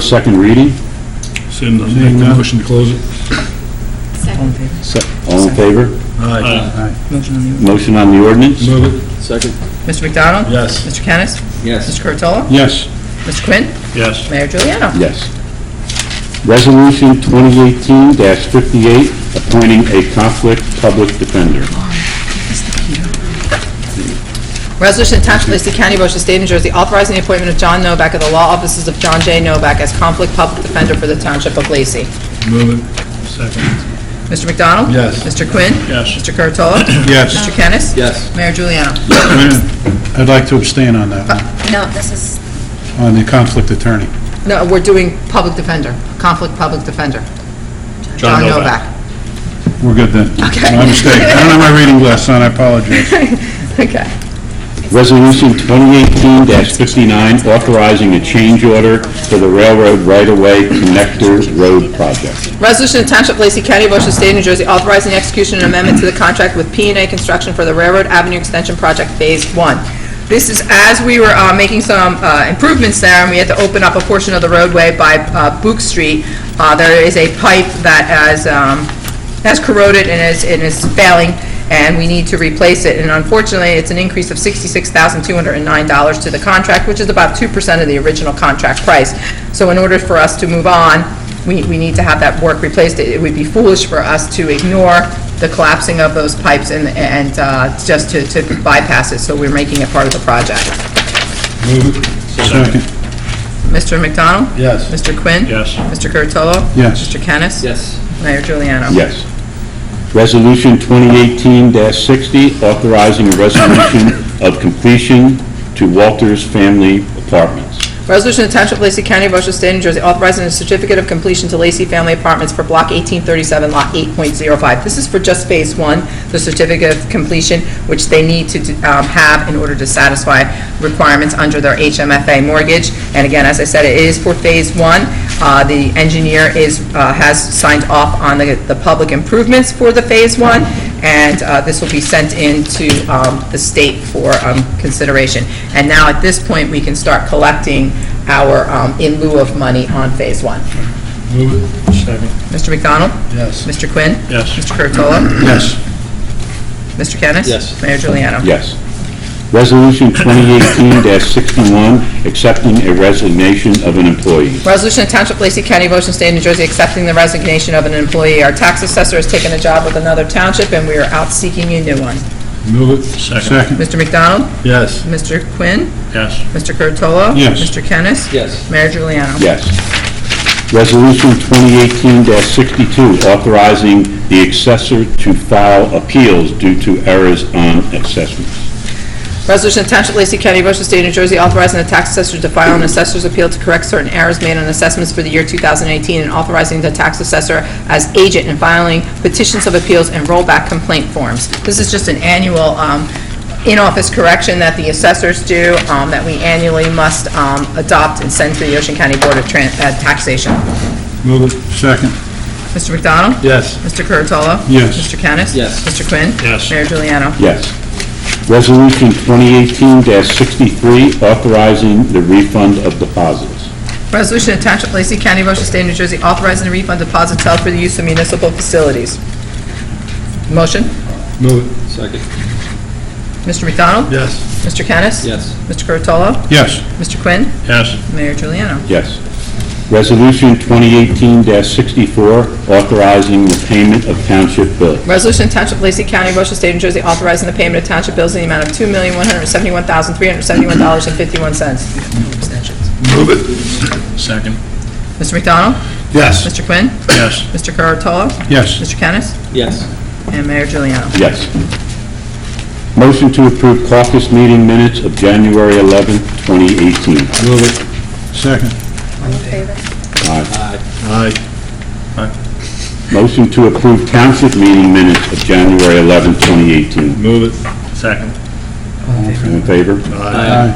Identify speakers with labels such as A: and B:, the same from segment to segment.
A: Second reading,
B: Send, make the motion to close it.
C: Second.
A: Se- all in favor?
C: Motion on the...
A: Motion on the ordinance?
B: Move it.
D: Second.
C: Mr. McDonald?
B: Yes.
C: Mr. Kennis?
D: Yes.
C: Mr. Curatolo?
B: Yes.
C: Mr. Quinn?
B: Yes.
C: Mayor Juliana?
A: Yes. Resolution 2018-58, appointing a conflict public defender.
C: Resolution to Township of Lacey County, Ocean State, New Jersey, authorizing the appointment of John Novak of the law offices of John J. Novak as conflict public defender for the Township of Lacey.
B: Move it. Second.
C: Mr. McDonald?
B: Yes.
C: Mr. Quinn?
B: Yes.
C: Mr. Curatolo?
B: Yes.
C: Mr. Kennis?
D: Yes.
C: Mayor Juliana?
E: I'd like to abstain on that one,
C: No, this is...
E: on the conflict attorney.
C: No, we're doing public defender, conflict public defender. John Novak.
E: We're good then.
C: Okay.
E: My mistake. I don't have my reading glass on, I apologize.
C: Okay.
A: Resolution 2018-59, authorizing a change order for the railroad right-of-way connector road project.
C: Resolution of Township of Lacey County, Ocean State, New Jersey, authorizing the execution and amendment to the contract with p and A Construction for the Railroad Avenue Extension Project Phase One. This is as we were uh, making some uh, improvements there, and we had to open up a portion of the roadway by uh, Book Street. Uh, There is a pipe that has, um, that's corroded and is, and is failing, and we need to replace it. And unfortunately, it's an increase of $66,209 to the contract, which is about 2% of the original contract price. So in order for us to move on, we, we need to have that work replaced. It it would be foolish for us to ignore the collapsing of those pipes and, and uh, just to to bypass it, so we're making it part of the project.
B: Move it.
E: Second,
C: Mr. McDonald?
B: Yes.
C: Mr. Quinn?
B: Yes.
C: Mr. Curatolo?
E: Yes.
C: Mr. Kennis?
D: Yes.
C: Mayor Juliana?
A: Yes. Resolution 2018-60, authorizing a resolution of completion to Walters Family Apartments.
C: Resolution to Township of Lacey County, Ocean State, New Jersey, authorizing a certificate of completion to Lacey Family Apartments for Block 1837, Lot 8.05. This is for just Phase 1, the certificate of completion, which they need to um, have in order to satisfy requirements under their HMFA mortgage. And again, as I said, it is for Phase 1. Uh, The engineer is, uh, has signed off on the, the public improvements for the Phase 1, and uh, this will be sent in to um, the state for um, consideration. And now, at this point, we can start collecting our um, in lieu of money on Phase 1.
B: Move it. Second.
C: Mr. McDonald?
B: Yes.
C: Mr. Quinn?
B: Yes.
C: Mr. Curatolo?
E: yes.
C: Mr. Kennis?
D: Yes.
C: Mayor Juliana?
A: Yes. Resolution 2018-61, accepting a resignation of an employee.
C: Resolution of Township of Lacey County, Ocean State, New Jersey, accepting the resignation of an employee. Our tax assessor has taken a job with another township, and we are out seeking a new one.
B: Move it. Second.
E: Second,
C: Mr. McDonald?
B: Yes.
C: Mr. Quinn?
B: Yes.
C: Mr. Curatolo?
E: Yes.
C: Mr. Kennis?
D: Yes.
C: Mayor Juliana?
A: Yes. Resolution 2018-62, authorizing the assessor to file appeals due to errors on assessments.
C: Resolution of Township of Lacey County, Ocean State, New Jersey, authorizing the tax assessor to file an assessor's appeal to correct certain errors made on assessments for the year 2018 and authorizing the tax assessor as agent in filing petitions of appeals and rollback complaint forms. This is just an annual um, in-office correction that the assessors do, um, that we annually must um, adopt and send to the Ocean County Board of Tran- uh, Taxation.
E: move it, second,
C: Mr. McDonald?
B: Yes.
C: Mr. Curatolo?
E: Yes.
C: Mr. Kennis?
D: Yes.
C: Mr. Quinn?
B: Yes.
C: Mayor Juliano?
A: Yes. Resolution 2018-63, authorizing the refund of deposits.
C: Resolution of Township of Lacey County, Ocean State, New Jersey, authorizing the refund of deposits held for the use of municipal facilities. Motion,
B: Move it.
D: Second.
C: Mr. McDonald?
B: Yes.
C: Mr. Kennis?
D: Yes.
C: Mr. Curatolo?
E: yes.
C: Mr. Quinn?
B: Yes.
C: Mayor Juliano?
A: Yes. Resolution 2018-64, authorizing the payment of township bills.
C: Resolution of Township of Lacey County, Ocean State, New Jersey, authorizing the payment of township bills in the amount of $2,171,371.51.
B: Move it. Second.
C: Mr. McDonald?
B: Yes.
C: Mr. Quinn?
B: Yes.
C: Mr. Curatolo?
E: Yes.
C: Mr. Kennis?
D: Yes.
C: And Mayor Juliano?
A: Yes. Motion to approve caucus meeting minutes of January 11th, 2018.
B: Move it.
E: Second,
B: Aye.
A: Motion to approve township meeting minutes of January 11th, 2018.
B: Move it. Second.
A: In favor?
D: Aye.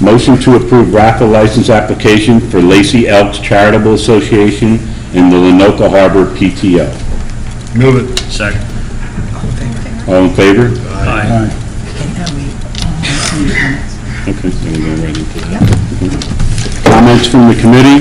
A: Motion to approve raffle license application for Lacey Elks Charitable Association and the Lenoka Harbor PTO.
B: Move it. Second.
A: All in favor?
B: Aye.
A: Okay, so we're going right into that. Comments from the committee?